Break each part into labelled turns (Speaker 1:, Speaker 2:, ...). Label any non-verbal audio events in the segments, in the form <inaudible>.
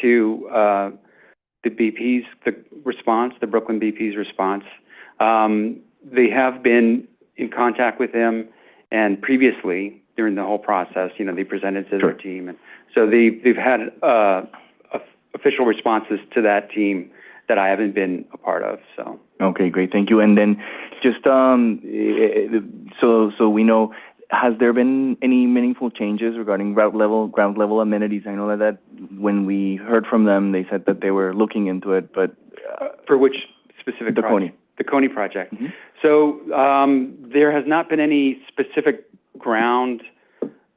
Speaker 1: to uh, the BP's, the response, the Brooklyn BP's response. Um, They have been in contact with them, and previously, during the whole process, you know, they presented to their
Speaker 2: Sure.
Speaker 1: team. and So they, they've had uh, of- official responses to that team that I haven't been a part of, so.
Speaker 2: Okay, great. Thank you. And then just, um, eh, eh, so, so we know, has there been any meaningful changes regarding route level, ground level amenities? I know that when we heard from them, they said that they were looking into it, but, uh,
Speaker 1: For which specific
Speaker 2: the Coney.
Speaker 1: project? The Coney project.
Speaker 2: Mhm.
Speaker 1: So, um, there has not been any specific ground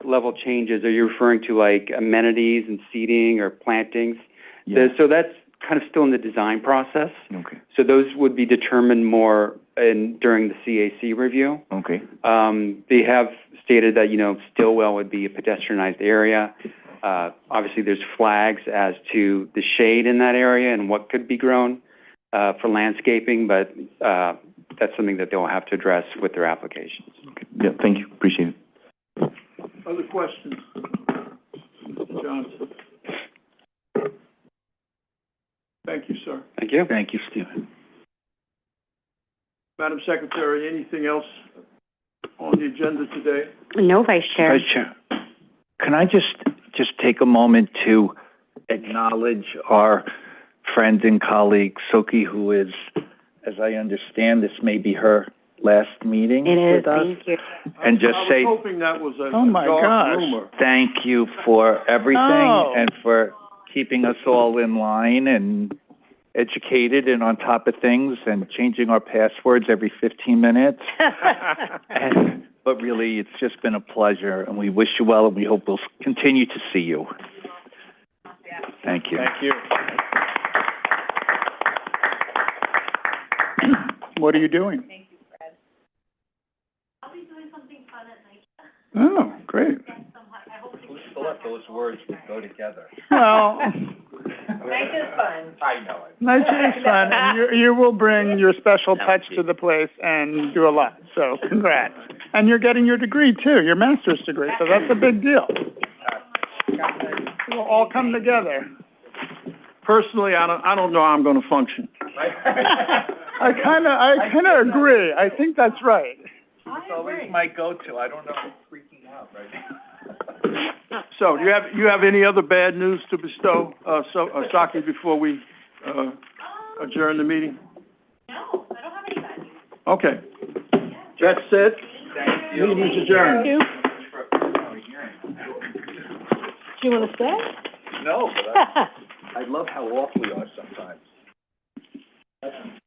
Speaker 1: level changes. Are you referring to like amenities and seating or plantings?
Speaker 2: Yeah.
Speaker 1: The- So that's kind of still in the design process.
Speaker 2: Okay,
Speaker 1: So those would be determined more in, during the CAC review.
Speaker 2: okay,
Speaker 1: Um, they have stated that, you know, Stillwell would be a pedestrianized area. Uh, obviously, there's flags as to the shade in that area and what could be grown, uh, for landscaping, but, uh, that's something that they'll have to address with their applications.
Speaker 2: okay. Yeah, thank you. Appreciate it.
Speaker 3: Other questions? Mr. Johnson? Thank you, sir.
Speaker 1: Thank you.
Speaker 4: Thank you, Stephen.
Speaker 3: Madam Secretary, anything else on the agenda today?
Speaker 5: No, Vice Chair.
Speaker 4: Vice Chair, can I just, just take a moment to acknowledge our friend and colleague, Soki, who is, as I understand, this may be her last meeting
Speaker 5: It is,
Speaker 4: with us?
Speaker 5: thank you.
Speaker 4: And just say-
Speaker 3: I was hoping that was a a
Speaker 4: Oh, my
Speaker 3: dark
Speaker 4: gosh. <laughs> Oh.
Speaker 3: rumor.
Speaker 4: Thank you for everything
Speaker 3: No.
Speaker 4: and for keeping us all in line and educated and on top of things and changing our passwords every 15 <laughs> minutes. And, but really, it's just been a pleasure, and we wish you well, and we hope we'll continue to see you. Thank you.
Speaker 3: Thank you.
Speaker 6: <clears throat> What are you doing? Thank you, Fred. I'll be doing something fun
Speaker 4: Those words would go together.
Speaker 6: at night. Oh, great. Well,
Speaker 4: Nice is fun. I know it.
Speaker 6: nice is fun. and You, you will bring your special touch to the place and do a lot, so congrats. And you're getting your degree too, your master's degree, so that's a big deal. We'll all come together.
Speaker 3: Personally, I don't, I don't know how I'm gonna function.
Speaker 6: I kinda, I kinda agree. I think that's right.
Speaker 4: It's always my go-to. I don't know if I'm freaking out right
Speaker 3: So, do you have, you have any other bad news to bestow, uh, so, uh, Saki, before we, uh, adjourn the meeting? No, I don't have any bad news. Okay. That's it. Meeting's adjourned.
Speaker 5: Do you want to
Speaker 4: No, but
Speaker 5: stay? <laughs>
Speaker 4: I, I love how off we are sometimes.